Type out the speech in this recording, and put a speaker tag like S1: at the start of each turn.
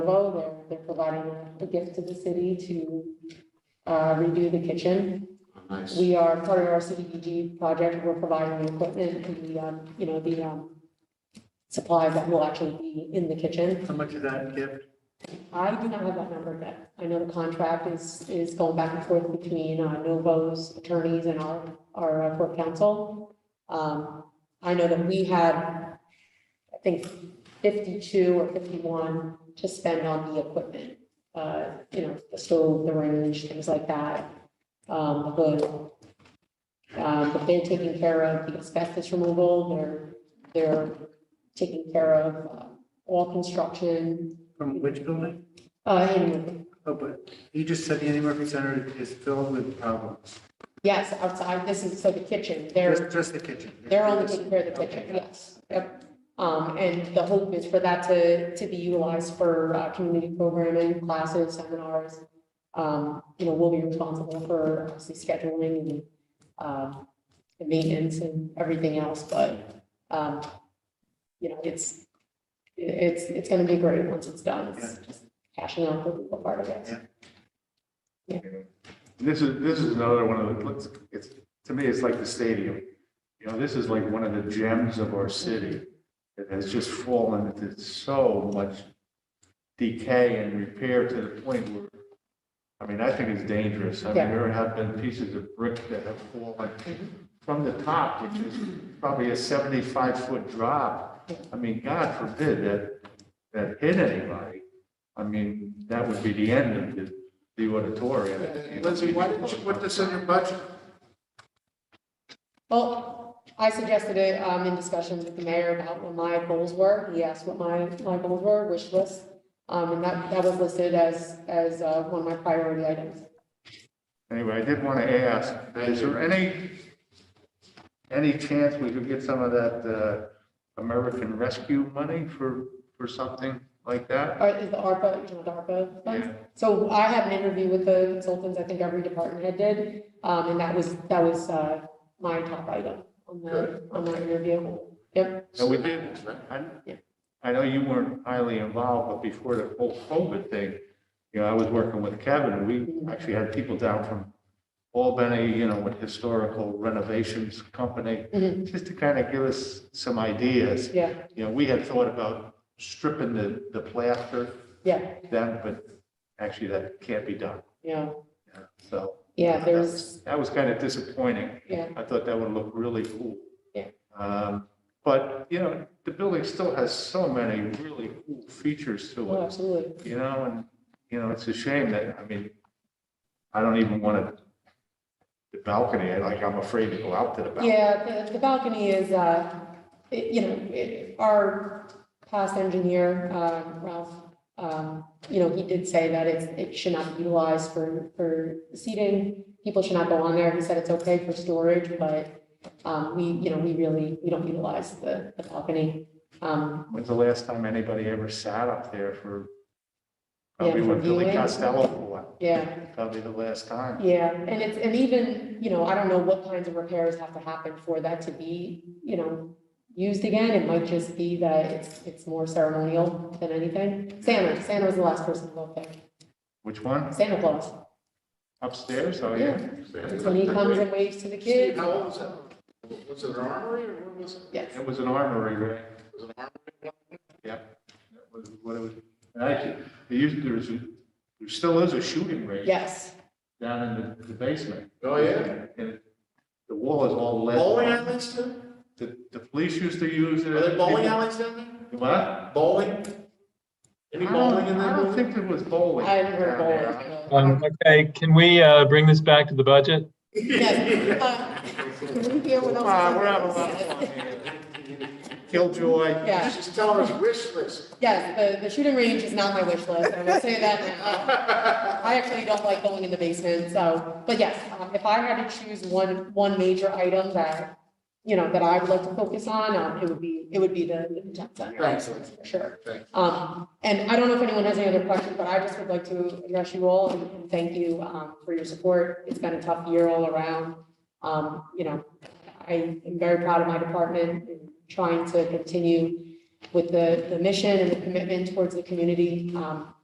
S1: Low, they're, they're providing a gift to the city to uh, redo the kitchen.
S2: Nice.
S1: We are part of our CDBG project, we're providing the equipment and the, um, you know, the um, supplies that will actually be in the kitchen.
S3: How much is that gift?
S1: I do not have that number yet. I know the contract is, is going back and forth between uh, Novo's attorneys and our, our uh, court counsel. Um, I know that we had, I think, fifty-two or fifty-one to spend on the equipment. Uh, you know, the stove, the range, things like that, um, the hood. Um, but they're taking care of the asbestos removal, they're, they're taking care of uh, all construction,
S3: From which building?
S1: uh, and
S3: Oh, but you just said the Andy Murphy Center is filled with problems.
S1: yes, outside, this is, so the kitchen, they're,
S3: Just, just the kitchen.
S1: they're only taking care of the kitchen, yes. Yep. Um, and the hope is for that to, to be utilized for, uh, community programming, classes, seminars. Um, you know, we'll be responsible for obviously scheduling and, um, the maintenance and everything else, but, um, you know, it's, it's, it's gonna be great once it's done. It's just cashing out the legal part of it.
S2: This is, this is another one of the, let's- it's, to me, it's like the stadium. You know, this is like one of the gems of our city. It has just fallen into so much decay and repair to the point where, I mean, I think it's dangerous. I mean,
S1: Yeah.
S2: there have been pieces of brick that have fallen from the top, which is probably a seventy-five foot drop. I mean, God forbid that, that hit anybody. I mean, that would be the end of the, the auditorium.
S3: Lindsay, why didn't you put this in your budget?
S1: Well, I suggested it um, in discussions with the mayor about what my goals were. He asked what my, my goals were, wish list. Um, And that, that was listed as, as uh, one of my priority items.
S2: Anyway, I did want to ask, is there any, any chance we could get some of that uh, American Rescue money for, for something like that?
S1: Or Uh, is the ARPA, you know, the ARPA funds?
S2: Yeah.
S1: So I had an interview with the consultants, I think every department head did. um, And that was, that was uh, my top item on the, on that interview. Yep,
S2: So we did, I- I know you weren't highly involved, but before the whole COVID thing, you know, I was working with Kevin, and we actually had people down from Albany, you know, with historical renovations company,
S1: Mhm.
S2: just to kind of give us some ideas.
S1: yeah,
S2: You know, we had thought about stripping the, the plaster
S1: yeah,
S2: them, but actually that can't be done.
S1: yeah,
S2: So
S1: yeah, there's,
S2: that was kind of disappointing.
S1: yeah,
S2: I thought that would look really cool.
S1: Yeah.
S2: Um, But, you know, the building still has so many really cool features to
S1: oh,
S2: it,
S1: absolutely.
S2: you know, and, you know, it's a shame that, I mean, I don't even want to, the balcony, I- like, I'm afraid to go out to the balcony.
S1: Yeah, the, the balcony is, uh, it- you know, it- our past engineer, uh, Ralph, um, you know, he did say that it's, it should not be utilized for, for seating. People should not go on there. He said it's okay for storage, but, um, we, you know, we really, we don't utilize the, the balcony. Um,
S2: When's the last time anybody ever sat up there for, probably
S1: Yeah,
S2: when
S1: for
S2: Billy
S1: viewing.
S2: Costello was,
S1: yeah,
S2: probably the last time.
S1: Yeah, and it's, and even, you know, I don't know what kinds of repairs have to happen for that to be, you know, used again. It might just be that it's, it's more ceremonial than anything. Santa, Santa was the last person to go there.
S2: Which one?
S1: Santa Claus.
S2: Upstairs? Oh, yeah.
S1: Yeah. It's when he comes and waves to the
S3: Steve,
S1: kids.
S3: how old was that? Was it an armory or what was it?
S1: Yes.
S2: It was an armory, right?
S3: Was it an armory?
S2: That was What it was, and actually, there used, there was, a- there still is a shooting range
S1: Yes,
S2: down in the- the basement.
S3: Oh, yeah?
S2: And it- the wall is all lead.
S3: Bowling alleys too?
S2: The, the police used to use it.
S3: Are there bowling
S2: People-
S3: alleys down there?
S2: What?
S3: Bowling? Any bowling in
S2: I
S3: that
S2: don't
S3: building?
S2: think there was bowling.
S1: I haven't heard
S2: down there.
S1: bowling.
S4: Um, Okay, can we uh, bring this back to the budget?
S1: Yes. uh, Can we hear what else?
S2: Wow, Uh, we're having a lot of fun here. Killjoy.
S1: Yeah.
S3: Just tell us wish list.
S1: Yes, the, the shooting range is not my wish list, I will say that now. I actually don't like going in the basement, so, but yes, um, if I had to choose one, one major item that, you know, that I would like to focus on, um, it would be, it would be the the content center.
S3: Thanks, Lindsay.
S1: For sure.
S3: Thank
S1: Um, and I don't know if anyone has any other questions, but I just would like to address you all and- and thank you, um, for your support. It's been a tough year all around. Um, you know, I am very proud of my department in trying to continue with the, the mission and the commitment towards the community. Um,